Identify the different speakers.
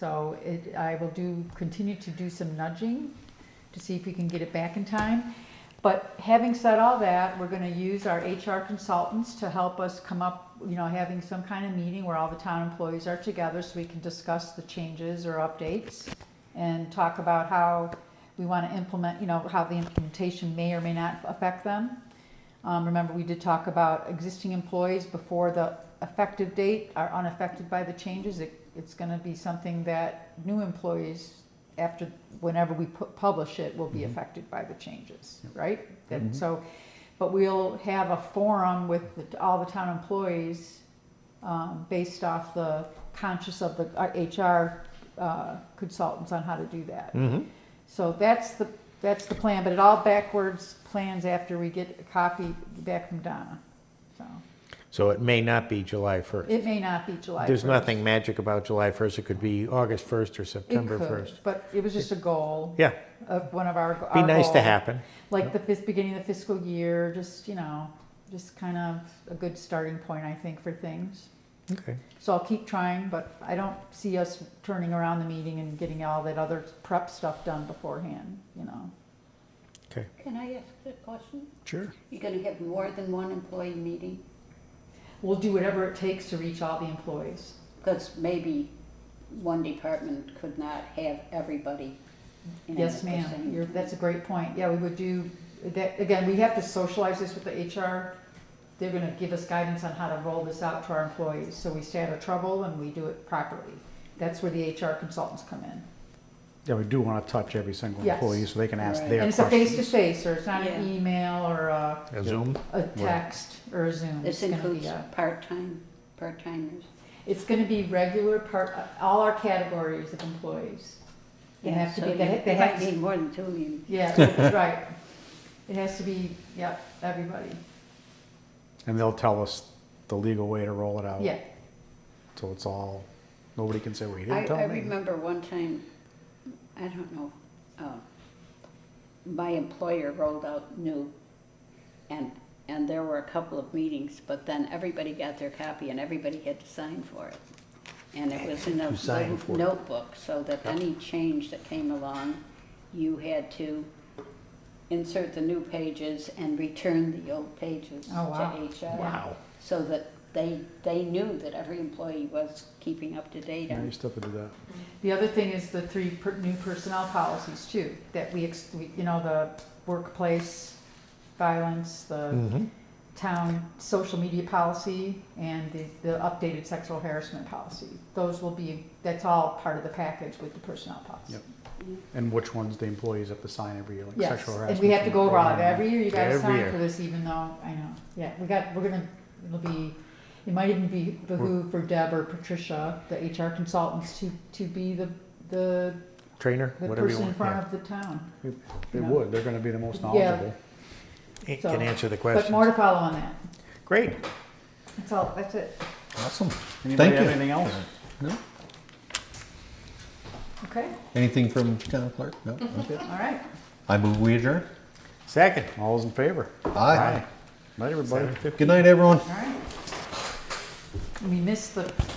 Speaker 1: So it, I will do, continue to do some nudging to see if we can get it back in time. But having said all that, we're gonna use our HR consultants to help us come up, you know, having some kind of meeting where all the town employees are together so we can discuss the changes or updates and talk about how we wanna implement, you know, how the implementation may or may not affect them. Um, remember, we did talk about existing employees before the effective date are unaffected by the changes. It, it's gonna be something that new employees, after, whenever we pu- publish it, will be
Speaker 2: Mhm.
Speaker 1: affected by the changes, right?
Speaker 2: Mhm.
Speaker 1: And so, but we'll have a forum with the- all the town employees, um, based off the conscious of the uh, HR uh, consultants on how to do that.
Speaker 3: Mhm.
Speaker 1: So that's the, that's the plan, but it all backwards plans after we get a copy back from Donna. So
Speaker 3: So it may not be July 1st.
Speaker 1: it may not be July.
Speaker 3: There's
Speaker 1: 1st.
Speaker 3: nothing magic about July 1st. It could be August 1st or
Speaker 1: It
Speaker 3: September
Speaker 1: could,
Speaker 3: 1st.
Speaker 1: But it was just a goal.
Speaker 3: Yeah.
Speaker 1: Of one of our.
Speaker 3: Be
Speaker 1: our
Speaker 3: nice to
Speaker 1: goals.
Speaker 3: happen.
Speaker 1: Like the fis- beginning of the fiscal year, just, you know, just kind of a good starting point, I think, for things.
Speaker 3: Okay.
Speaker 1: So I'll keep trying, but I don't see us turning around the meeting and getting all that other prep stuff done beforehand, you know.
Speaker 4: Can I ask a question?
Speaker 3: Sure.
Speaker 4: You're gonna have more than one employee meeting?
Speaker 1: We'll do whatever it takes to reach all the employees.
Speaker 4: Because maybe one department could not have everybody. in
Speaker 1: Yes,
Speaker 4: at the
Speaker 1: ma'am,
Speaker 4: same
Speaker 1: you're, that's a
Speaker 4: time.
Speaker 1: great point, yeah, we would do, that, again, we have to socialize this with the HR. They're gonna give us guidance on how to roll this out to our employees, so we stay out of trouble and we do it properly. That's where the HR consultants come in.
Speaker 2: Yeah, we do want to touch every single
Speaker 1: Yes.
Speaker 2: employee so they can ask
Speaker 4: Right.
Speaker 2: their
Speaker 1: And it's a
Speaker 2: questions.
Speaker 1: face-to-face, or it's not an
Speaker 4: Yeah.
Speaker 1: email or a,
Speaker 3: A Zoom?
Speaker 1: a text or a Zoom. It's
Speaker 4: This
Speaker 1: gonna be uh,
Speaker 4: includes
Speaker 1: a-
Speaker 4: part-time, part-timers.
Speaker 1: It's gonna be regular part, uh, all our categories of employees. They
Speaker 4: Yeah,
Speaker 1: have to
Speaker 4: so
Speaker 1: be, they
Speaker 4: you-
Speaker 1: ha- they
Speaker 4: you
Speaker 1: have
Speaker 4: might
Speaker 1: to
Speaker 4: need more than two of you.
Speaker 1: Yeah, right. It has to be, yep, everybody.
Speaker 2: And they'll tell us the legal way to roll it out.
Speaker 1: Yeah,
Speaker 2: So it's all, nobody can say, well, you
Speaker 4: I,
Speaker 2: didn't
Speaker 4: I
Speaker 2: tell me.
Speaker 4: remember one time, I don't know, uh, my employer rolled out new, and, and there were a couple of meetings, but then everybody got their copy and everybody had to sign for it. And it was in a
Speaker 3: Who signed
Speaker 4: little
Speaker 3: for it?
Speaker 4: notebook, so that any change that came along, you had to insert the new pages and return the old pages to
Speaker 1: Oh, wow.
Speaker 4: HR.
Speaker 3: Wow.
Speaker 4: So that they, they knew that every employee was keeping up to date
Speaker 2: Yeah,
Speaker 4: on
Speaker 2: you still have to do that.
Speaker 1: the other thing is the three per- new personnel policies too, that we, ex- we- you know, the workplace violence, the
Speaker 3: Mm-hmm.
Speaker 1: town social media policy, and the, the updated sexual harassment policy. Those will be, that's all part of the package with the personnel policy.
Speaker 2: Yep. And which ones the employees have to sign every year, like
Speaker 1: Yes,
Speaker 2: sexual harassment.
Speaker 1: and we have to go over all of it.
Speaker 2: program.
Speaker 1: every year, you guys
Speaker 3: Every
Speaker 1: sign
Speaker 3: year.
Speaker 1: for this even though, I know, yeah, we got, we're gonna, it'll be, it might even be behoove for Deb or Patricia, the HR consultants, to, to be the, the,
Speaker 3: Trainer,
Speaker 1: the
Speaker 3: whatever you
Speaker 1: person in
Speaker 3: want.
Speaker 1: front
Speaker 3: yeah.
Speaker 1: of the town.
Speaker 2: They
Speaker 1: you know.
Speaker 2: would, they're gonna be the most
Speaker 1: Yeah.
Speaker 2: knowledgeable.
Speaker 3: A-
Speaker 1: So-
Speaker 3: Can answer the
Speaker 1: But more
Speaker 3: question.
Speaker 1: to follow on that,
Speaker 3: Great.
Speaker 1: that's all, that's it,
Speaker 5: Awesome.
Speaker 2: Anybody
Speaker 5: Thank
Speaker 2: have
Speaker 5: you.
Speaker 2: anything else?
Speaker 5: No?
Speaker 1: okay,
Speaker 5: Anything from town clerk? No? Okay.
Speaker 1: all right.
Speaker 5: I move we adjourn.
Speaker 3: Second.
Speaker 2: All those in favor?
Speaker 5: Aye.
Speaker 2: Night, everybody.
Speaker 5: Good night, everyone.
Speaker 1: All right. We missed the